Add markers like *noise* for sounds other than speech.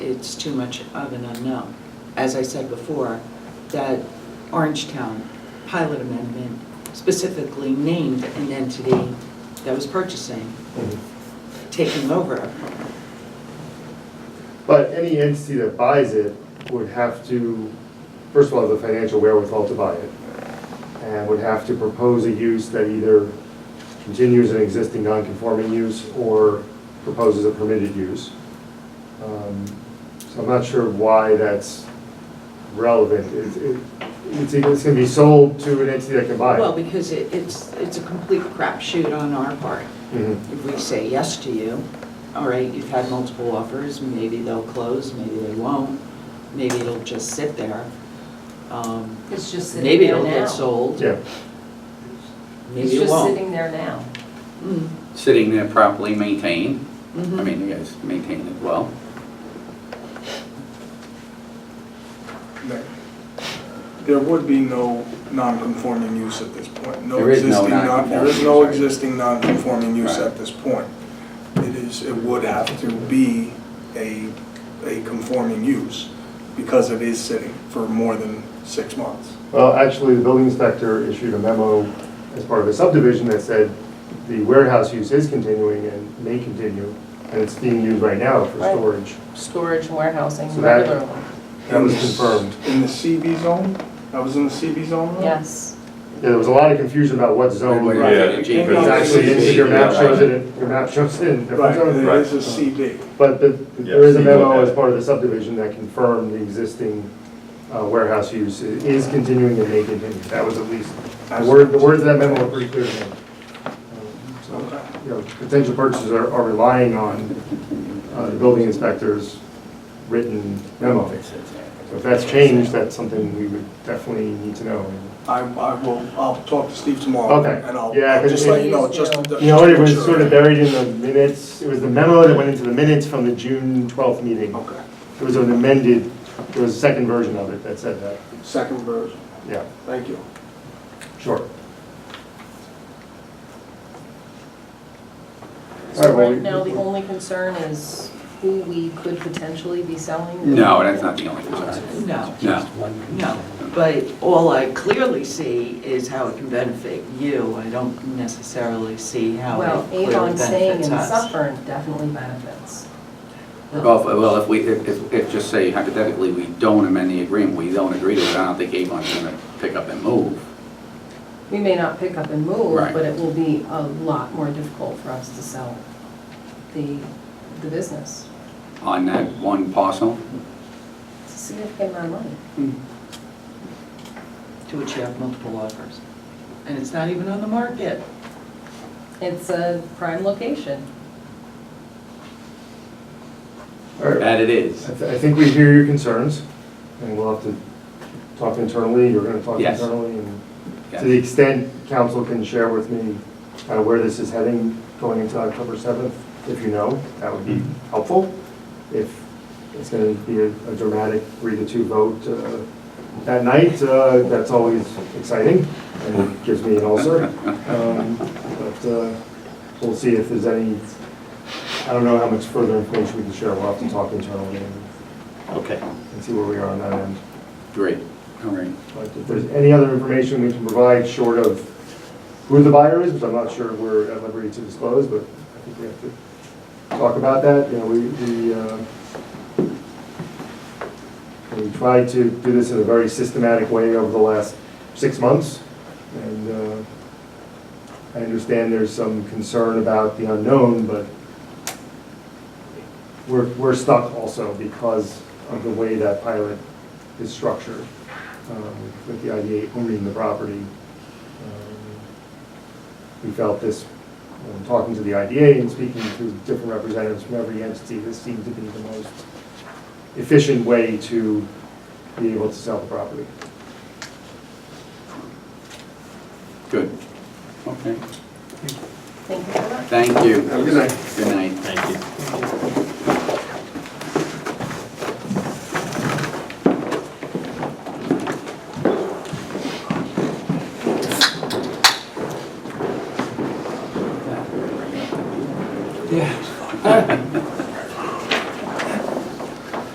it's too much of an unknown. As I said before, that Orangetown pilot amendment specifically named an entity that was purchasing, taking over. But any entity that buys it would have to, first of all, have the financial wherewithal to buy it, and would have to propose a use that either continues an existing non-conforming use or proposes a permitted use. Um, So I'm not sure why that's relevant. It's, it- it's either- it's gonna be sold to an entity that can buy Well, it. because it- it's, it's a complete crapshoot on our part. Mhm. If we say yes to you, all right, you've had multiple offers, maybe they'll close, maybe they won't, maybe it'll just sit there. Um, It's just sitting Maybe there now. it'll get sold, Yeah, maybe it It's just won't. sitting there now. Mm, sitting there properly maintained. I mhm. mean, you guys maintain it well. There would be no non-conforming use at this point. There is no existing non- There is non-conforming no use, right. existing non-conforming use Right. at this point. It is, it would have to be a, a conforming use because it is sitting for more than six months. Well, actually, the building inspector issued a memo as part of a subdivision that said the warehouse use is continuing and may continue, and it's being used right now for Right. storage. Storage and warehousing So that- regularly, That was confirmed. In the CB zone? That was in the CB zone? Mm-hmm. though? yes. Yeah, there was a lot of confusion about what zone, Wait, but wait, Yeah. wait, Jake, But it's actually, in- your map shows it, in- your map shows it in different Right, zones. it is a CB. But the- Yeah, there is a so you look memo at as it. part of the subdivision that confirmed the existing uh, warehouse use i- is continuing and may continue. That was at least, the word- the words of that memo were pretty clear. to me. Um, So Okay. you know, potential purchasers are are relying on uh, the building inspector's written memo. So if that's changed, that's something we would definitely need to know. I, I will, I'll talk to Steve tomorrow. Okay. And I'll, Yeah, I'll 'cause just it- let you know, just. You know, it was sort of buried in the minutes, it was the memo that went into the minutes from the June 12th meeting. Okay, It was an amended, there was a second version of it that said that, second version, yeah, thank you. sure. All So right, well, we- right now, the only concern is who we could potentially be selling. No, that's not the only concern. No, No. no, but all I clearly see is how it can benefit you. I don't necessarily see how Well, it clearly Avon staying benefits in us. Suffern definitely benefits. Well, if- well, if we, if- if, if, just say hypothetically, we don't amend the agreement, we don't agree to it, I don't think Avon's gonna pick up and move. We may not pick up and move, Right. but it will be a lot more difficult for us to sell the, the business. on that one parcel. It's a significant amount of money. To which you have multiple offers. And it's not even on the market. It's a prime location. All right, That it I is. th- I think we hear your concerns, and we'll have to talk internally, you're gonna talk Yes. internally, and Yes. to the extent council can share with me kind of where this is heading going into October 7th, if you know, that would be Mm-hmm. helpful. If it's gonna be a a dramatic three to two vote uh, that night, uh, that's always exciting, and gives me an *laughs* ulcer. Um, But uh, we'll see if there's any, I don't know how much further information we can share, we'll have to talk internally and Okay. and see where we are on that end. Great, all right. But if there's any other information we can provide short of who the buyer is, which I'm not sure we're at liberty to disclose, but I think we have to talk about that, you know, we, we, uh, we tried to do this in a very systematic way over the last six months, and, uh, I understand there's some concern about the unknown, but we're, we're stuck also because of the way that pilot is structured, um, with the IDA owning the property. Um, We felt this, when talking to the IDA and speaking to different representatives from every entity, this seemed to be the most efficient way to be able to sell the property. Good. Okay, Thank you for that. thank you. Have a good night. Good night. Thank you.